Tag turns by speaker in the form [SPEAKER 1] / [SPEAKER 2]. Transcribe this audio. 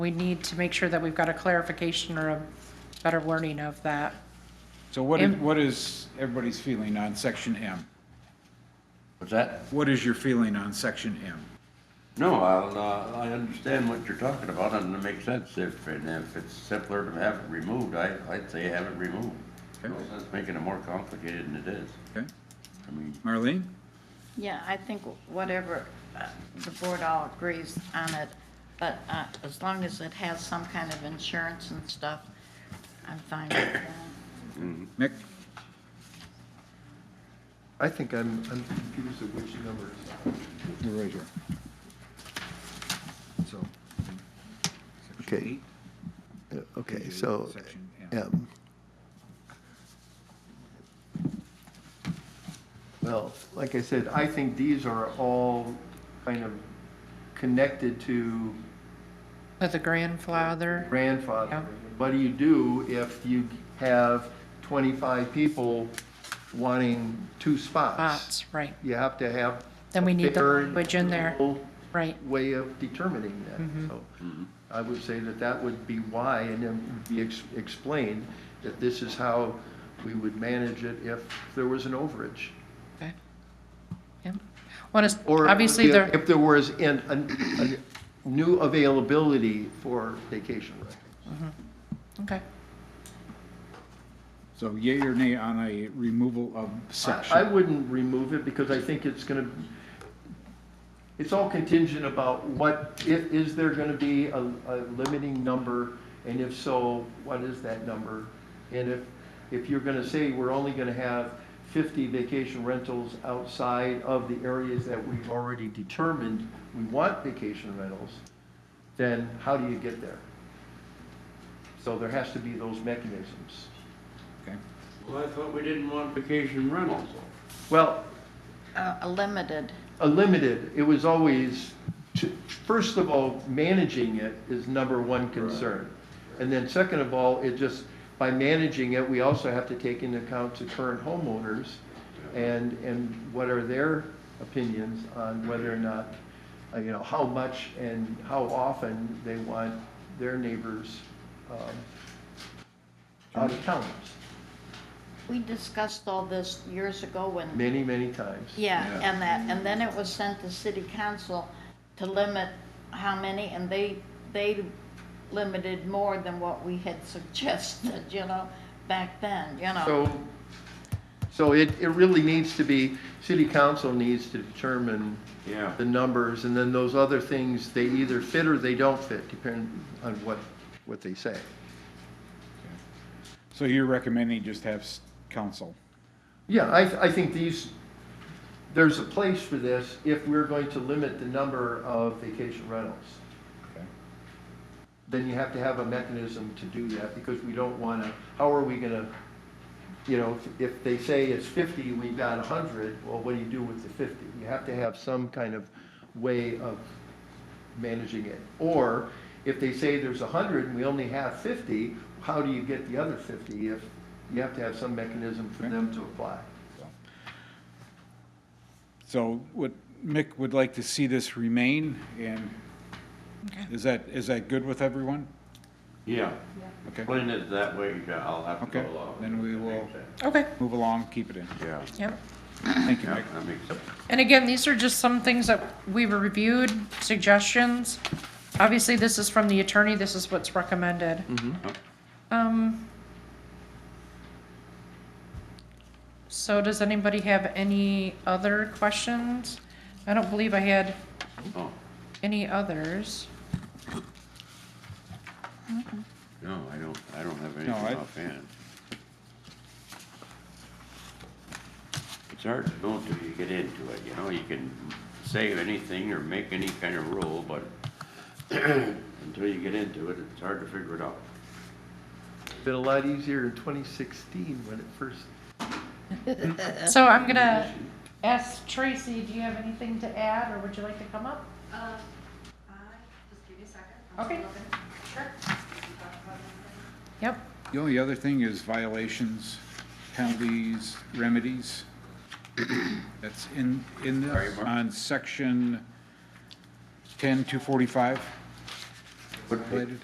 [SPEAKER 1] We need to make sure that we've got a clarification or a better wording of that.
[SPEAKER 2] So what, is-
[SPEAKER 1] M.
[SPEAKER 2] what is everybody's feeling on section M?
[SPEAKER 3] What's that?
[SPEAKER 2] What is your feeling on section M?
[SPEAKER 3] No, I'll, uh, I understand what you're talking about, and it makes sense if, and if it's simpler to have it removed, I, I'd say have it removed. No
[SPEAKER 2] Okay.
[SPEAKER 3] sense making it more complicated than it is.
[SPEAKER 2] Okay,
[SPEAKER 3] I mean,
[SPEAKER 2] Marlene?
[SPEAKER 4] Yeah, I think whatever, uh, the board all agrees on it, but uh, as long as it has some kind of insurance and stuff, I'm fine with that.
[SPEAKER 2] Mick?
[SPEAKER 5] I think I'm, I'm confused at which numbers,
[SPEAKER 2] You're right here.
[SPEAKER 5] so. Okay. Uh, Okay,
[SPEAKER 2] Page eight,
[SPEAKER 5] so,
[SPEAKER 2] section M.
[SPEAKER 5] M. Well, like I said, I think these are all kind of connected to
[SPEAKER 1] With the grandfather,
[SPEAKER 5] grandfather. What do you do if you have 25 people wanting two spots?
[SPEAKER 1] bots, right.
[SPEAKER 5] You have to have.
[SPEAKER 1] Then we
[SPEAKER 5] a
[SPEAKER 1] need the
[SPEAKER 5] fair and
[SPEAKER 1] language in there.
[SPEAKER 5] equitable
[SPEAKER 1] Right. Mm-hmm.
[SPEAKER 5] Way of determining that, so I would say that that would be why, and then would be ex- explained that this is how we would manage it if there was an overage.
[SPEAKER 1] Okay. Yeah. What is,
[SPEAKER 5] Or
[SPEAKER 1] obviously,
[SPEAKER 5] if-
[SPEAKER 1] there,
[SPEAKER 5] If there was an, an- a new availability for vacation rentals.
[SPEAKER 1] okay.
[SPEAKER 2] So yea or nay on a removal of
[SPEAKER 5] I I
[SPEAKER 2] section?
[SPEAKER 5] wouldn't remove it because I think it's gonna, it's all contingent about what, i- is there gonna be a, a limiting number? And if so, what is that number? And if, if you're gonna say we're only gonna have fifty vacation rentals outside of the areas that we've already determined we want vacation rentals, then how do you get there? So there has to be those mechanisms.
[SPEAKER 2] Okay.
[SPEAKER 3] well, I thought we didn't want vacation rentals.
[SPEAKER 5] Well,
[SPEAKER 4] Uh, A limited,
[SPEAKER 5] a limited, it was always, to- first of all, managing it is number one concern. And then second of all, it just, by managing it, we also have to take into account the current homeowners and, and what are their opinions on whether or not, uh, you know, how much and how often they want their neighbors um, out of town,
[SPEAKER 4] we discussed all this years ago when,
[SPEAKER 5] many, many times.
[SPEAKER 4] yeah, and that, and then it was sent to city council to limit how many, and they, they limited more than what we had suggested, you know, back then, you know.
[SPEAKER 5] So, so it, it really needs to be, city council needs to determine
[SPEAKER 3] Yeah.
[SPEAKER 5] the numbers, and then those other things, they either fit or they don't fit, depending on what, what they say.
[SPEAKER 2] So you're recommending just have s- council?
[SPEAKER 5] Yeah, I, I think these, there's a place for this if we're going to limit the number of vacation rentals.
[SPEAKER 2] Okay.
[SPEAKER 5] Then you have to have a mechanism to do that, because we don't wanna, how are we gonna, you know, if, if they say it's fifty, we've got a hundred, well, what do you do with the fifty? You have to have some kind of way of managing it. Or if they say there's a hundred and we only have fifty, how do you get the other fifty if, you have to have some mechanism for them to apply.
[SPEAKER 2] So what Mick would like to see this remain, and
[SPEAKER 1] Okay.
[SPEAKER 2] is that, is that good with everyone?
[SPEAKER 3] Yeah,
[SPEAKER 2] Okay,
[SPEAKER 3] explain it that way, yeah, I'll have to
[SPEAKER 2] Okay,
[SPEAKER 3] go along.
[SPEAKER 2] then we will-
[SPEAKER 1] Okay,
[SPEAKER 2] move along, keep it in.
[SPEAKER 3] Yeah,
[SPEAKER 1] yep.
[SPEAKER 2] Thank you,
[SPEAKER 3] yeah,
[SPEAKER 2] Mick.
[SPEAKER 3] that makes sense.
[SPEAKER 1] And again, these are just some things that we've reviewed, suggestions. Obviously, this is from the attorney, this is what's recommended. Um. So does anybody have any other questions? I don't believe I had
[SPEAKER 3] Oh,
[SPEAKER 1] any others.
[SPEAKER 3] no, I don't, I don't have anything
[SPEAKER 2] I-
[SPEAKER 3] offhand. It's hard to know until you get into it, you know, you can say anything or make any kind of rule, but until you get into it, it's hard to figure it out.
[SPEAKER 5] Been a lot easier in 2016 when it first,
[SPEAKER 1] So I'm gonna ask Tracy, do you have anything to add, or would you like to come up?
[SPEAKER 6] Uh, I, just give me a second. I'm
[SPEAKER 1] Okay.
[SPEAKER 6] still looking. Sure.
[SPEAKER 1] Yep,
[SPEAKER 2] The only other thing is violations, penalties, remedies. That's in, in
[SPEAKER 3] Sorry,
[SPEAKER 2] this,
[SPEAKER 3] Mark.
[SPEAKER 2] on section ten, two forty-five.
[SPEAKER 3] What page?
[SPEAKER 2] highlighted.